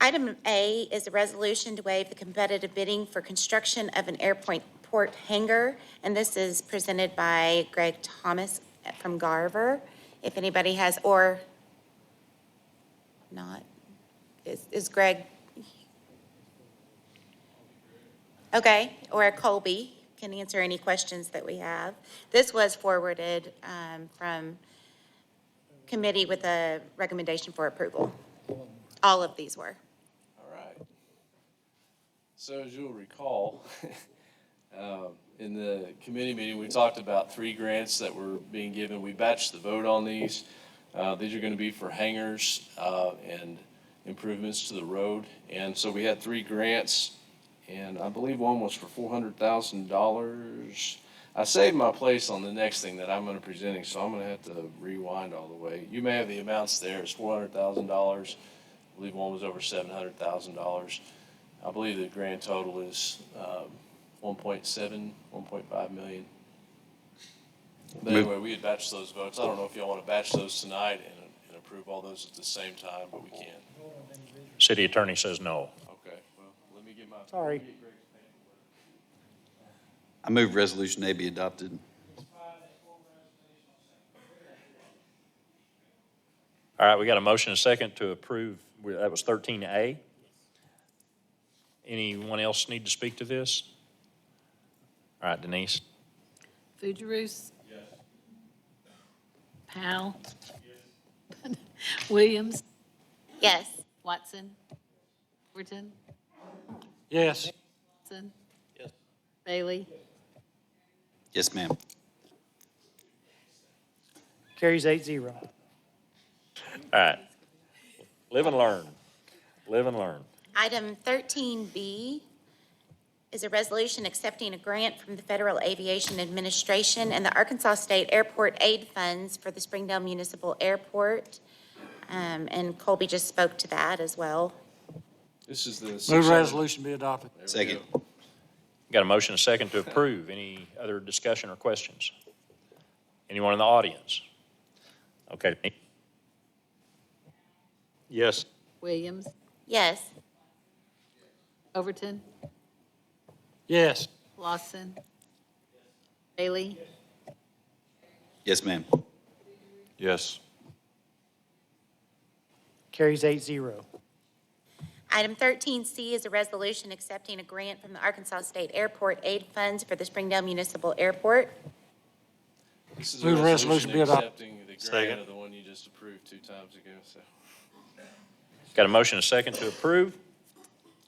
Item A is a resolution to waive the competitive bidding for construction of an airport port hangar, and this is presented by Greg Thomas from Garver. If anybody has, or not, is is Greg? Okay, or Colby can answer any questions that we have. This was forwarded um, from committee with a recommendation for approval. All of these were. All right. So as you'll recall, um, in the committee meeting, we talked about three grants that were being given. We batched the vote on these. Uh, These are going to be for hangars uh, and improvements to the road. And so we had three grants, and I believe one was for $400,000. I saved my place on the next thing that I'm going to presenting, so I'm going to have to rewind all the way. You may have the amounts there. It's $400,000. I believe one was over seven hundred thousand dollars. I believe the grand total is um, 1.7, 1.5 million. But Move- anyway, we had batched those votes. I don't know if y'all want to batch those tonight and, and approve all those at the same time, but we can. City attorney says no. Okay, well, let me get my. Sorry. I move Resolution A be adopted. All right, we got a motion and a second to approve, We- that was 13A. Anyone else need to speak to this? All right, Denise? Fujirus? Yes. Powell? Yes. Williams? Yes. Watson? Overton? Yes. Watson? Yes. Bailey? Yes, ma'am. Carries eight zero. All right. Live and learn. Live and learn. Item 13B is a resolution accepting a grant from the Federal Aviation Administration and the Arkansas State Airport Aid Funds for the Springdale Municipal Airport. Um, And Colby just spoke to that as well. This is the. Move 600 resolution be adopted. There we Second. go. Got a motion and a second to approve. Any other discussion or questions? Anyone in the audience? Okay. Denise? Yes. Williams? Yes. Overton? Yes. Lawson? Bailey? Yes, ma'am. Yes. Carries eight zero. Item 13C is a resolution accepting a grant from the Arkansas State Airport Aid Funds for the Springdale Municipal Airport. This is a Move resolution be resolution adopted. accepting the grant Second. of the one you just approved two times ago, so. Got a motion and a second to approve.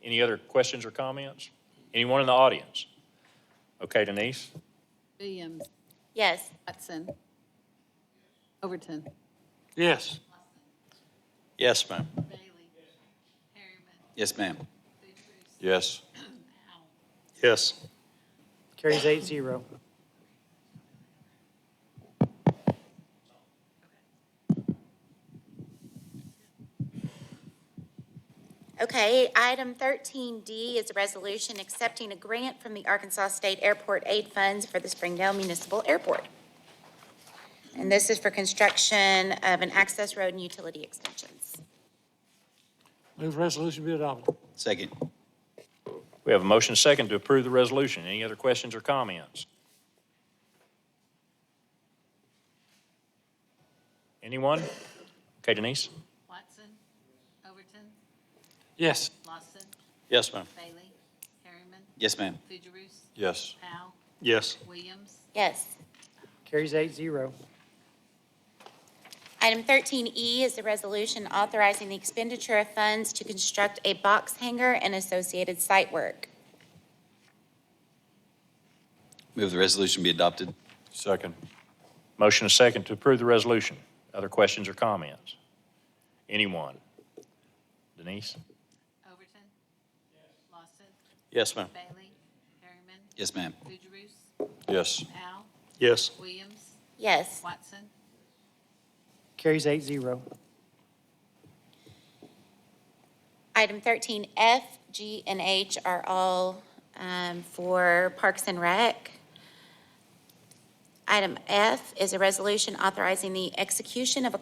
Any other questions or comments? Anyone in the audience? Okay, Denise? Williams? Yes. Watson? Overton? Yes. Yes, ma'am. Bailey? Harriman? Yes, ma'am. Fujirus? Yes. Powell? Yes. Carries eight zero. Okay, item 13D is a resolution accepting a grant from the Arkansas State Airport Aid Funds for the Springdale Municipal Airport. And this is for construction of an access road and utility extensions. Move resolution be adopted. Second. We have a motion and a second to approve the resolution. Any other questions or comments? Anyone? Okay, Denise? Watson? Overton? Yes. Lawson? Yes, ma'am. Bailey? Harriman? Yes, ma'am. Fujirus? Yes. Powell? Yes. Williams? Yes. Carries eight zero. Item 13E is a resolution authorizing the expenditure of funds to construct a box hangar and associated site work. Move the resolution be adopted. Second. Motion and a second to approve the resolution. Other questions or comments? Anyone? Denise? Overton? Lawson? Yes, ma'am. Bailey? Harriman? Yes, ma'am. Fujirus? Yes. Powell? Yes. Williams? Yes. Watson? Carries eight zero. Item 13 F, G, and H are all um, for Parks and Rec. Item F is a resolution authorizing the execution of a